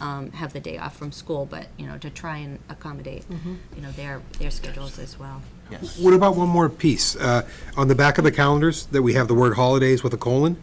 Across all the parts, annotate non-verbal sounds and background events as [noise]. um, have the day off from school, but, you know, to try and accommodate, you know, their, their schedules as well. Yes. What about one more piece? Uh, On the back of the calendars, that we have the word holidays with a colon,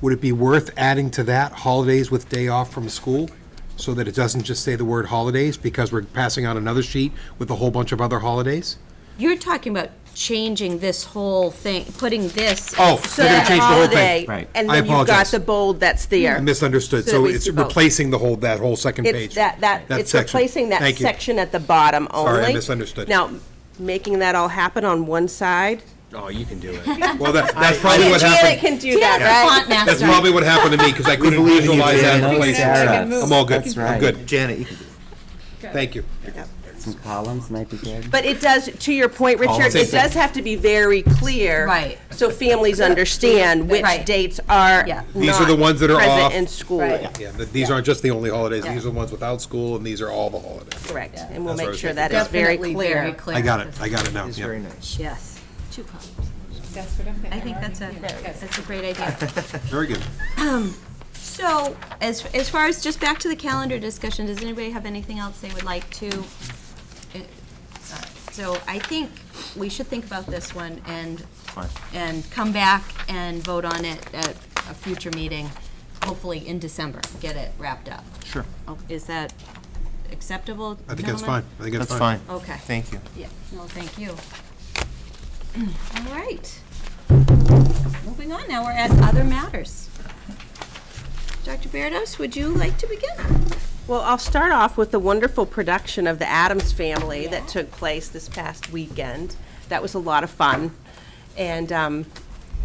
would it be worth adding to that holidays with day off from school? So that it doesn't just say the word holidays, because we're passing out another sheet with a whole bunch of other holidays? You're talking about changing this whole thing, putting this. Oh, they're gonna change the whole thing. Right. And I then you've got apologize. the bold that's there. I misunderstood, So so we it's see both. replacing the whole, that whole second page. It's that, that, it's section. replacing that Thank you. section at the bottom only. I misunderstood. Now, making that all happen on one side, Oh, you can [laughs] do it. Well, that- that's probably what Janet happened, can do that, the right? font master. that's probably what happened to me, because I couldn't believe you, visualize that Janet. place. Sarah. I'm all good, That's I'm right. good, Janet, you can do thank you. some columns, might be good. But it does, to your point, Richard, Same it thing. does have to be very clear. Right. So families understand which Right. dates are Yeah. These are the not ones that are off. Present in school, Right. Yeah, th- these aren't just the only holidays, Yeah. these are the ones without school, and these are all the holidays. correct. And That's we'll what I make was sure thinking. that is very Definitely clear. very clear. I got it, I got it now, It's yeah. very nice. Yes, two columns. That's what I'm thinking. I think that's a, that's a great idea. Very good. So, as, as far as, just back to the calendar discussion, does anybody have anything else they would like to? uh, So I think we should think about this one and, Fine. and come back and vote on it at a future meeting, hopefully in December, get it wrapped up. Sure. Oh, Is that acceptable, I think that's fine, gentlemen? I think That's fine. Okay. Thank you. Yeah, no, thank you. [clears throat] All right. Moving on, now we're at other matters. Dr. Berdus, would you like to begin? Well, I'll start off with the wonderful production of The Addams Family that took place this past weekend. That was a lot of fun. And um,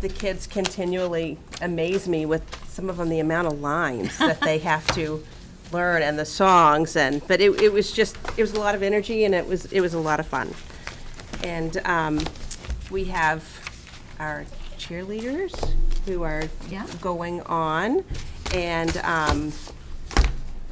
the kids continually amaze me with some of them, the amount of lines that they have to learn and the songs and, but it, it was just, it was a lot of energy and it was, it was a lot of fun. And um, we have our cheerleaders who are Yeah. going on. And um,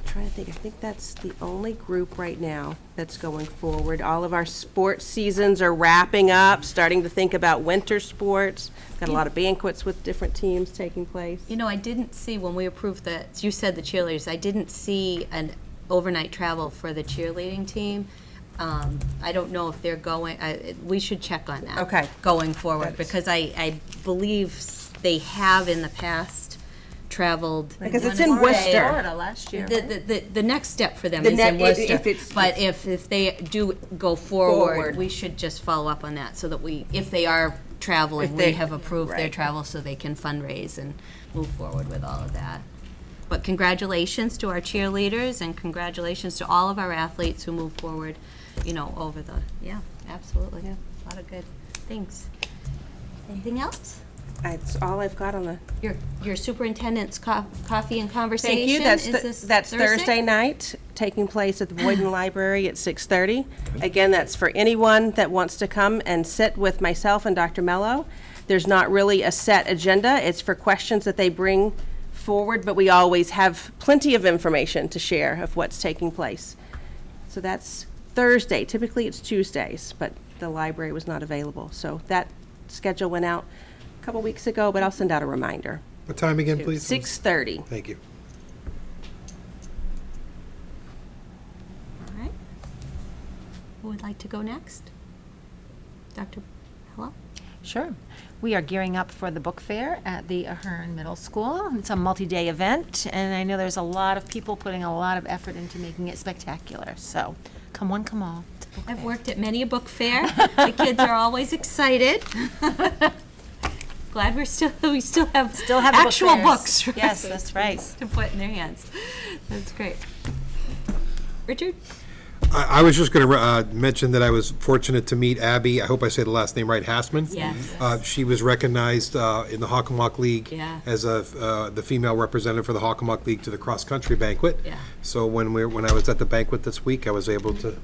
trying to think, I think that's the only group right now that's going forward. All of our sports seasons are wrapping up, starting to think about winter sports. Got a lot of banquets with different teams taking place. You know, I didn't see, when we approved the, you said the cheerleaders, I didn't see an overnight travel for the cheerleading team. Um, I don't know if they're going, I- we should check on that. Okay. Going forward, That's- because I, I believe s- they have in the past traveled. Because it's one in day. Worcester. last year. The, the, the- the next step for them The is ne- in if- Worcester. if it's- But if, if they do go forward, Forward. we should just follow up on that so that we, if they are traveling, If we they- have approved their right. travel so they can fundraise and move forward with all of that. But congratulations to our cheerleaders and congratulations to all of our athletes who move forward, you know, over the, yeah, absolutely. A lot of good things. Anything else? That's all I've got on the. Your, your superintendent's co- coffee and conversation? Thank you. That's, is th- this that's Thursday night, taking place at the Boyden Library at 6:30. Again, that's for anyone that wants to come and sit with myself and Dr. Mello. There's not really a set agenda. It's for questions that they bring forward, but we always have plenty of information to share of what's taking place. So that's Thursday. Typically, it's Tuesdays, but the library was not available. So that schedule went out a couple weeks ago, but I'll send out a reminder. What time again, please? 6:30. Thank you. All right. Who would like to go next? Dr. Hello? Sure. We are gearing up for the book fair at the Ahern Middle School. It's a multi-day event, and I know there's a lot of people putting a lot of effort into making it spectacular. So, come one, come all. It's a book I've fair. worked at many a book fair. The kids are always excited. [laughs] Glad we're still, we still have Still have the book actual fairs. books. right, Yes, that's right. [laughs] To put in their hands. That's great. Richard? I, I was just gonna, uh, mention that I was fortunate to meet Abby, I hope I say the last name right, Hassman. Yes. Uh, she was recognized, uh, in the Hockomock League. Yeah. As a, uh, the female representative for the Hockomock League to the cross-country banquet. Yeah. So when we, when I was at the banquet this week, I was able to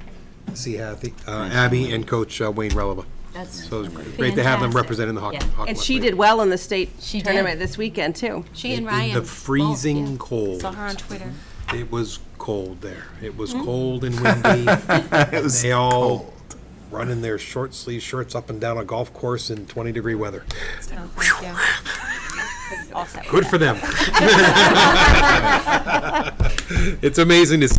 see Hathy, uh, Abby and Coach uh, Wayne Releva. That's So it was great to have them fantastic. representing the Hock- Yeah. Hockomock League. And she did well in the state She did. tournament this weekend, too. She and In Ryan. the both, yeah. freezing cold. Saw her on Twitter. It was cold there. It was cold and windy. they all running their short sleeve shirts up and down a golf course in 20 degree weather. So, thank you. All set. Good for them. [laughs] It's amazing to see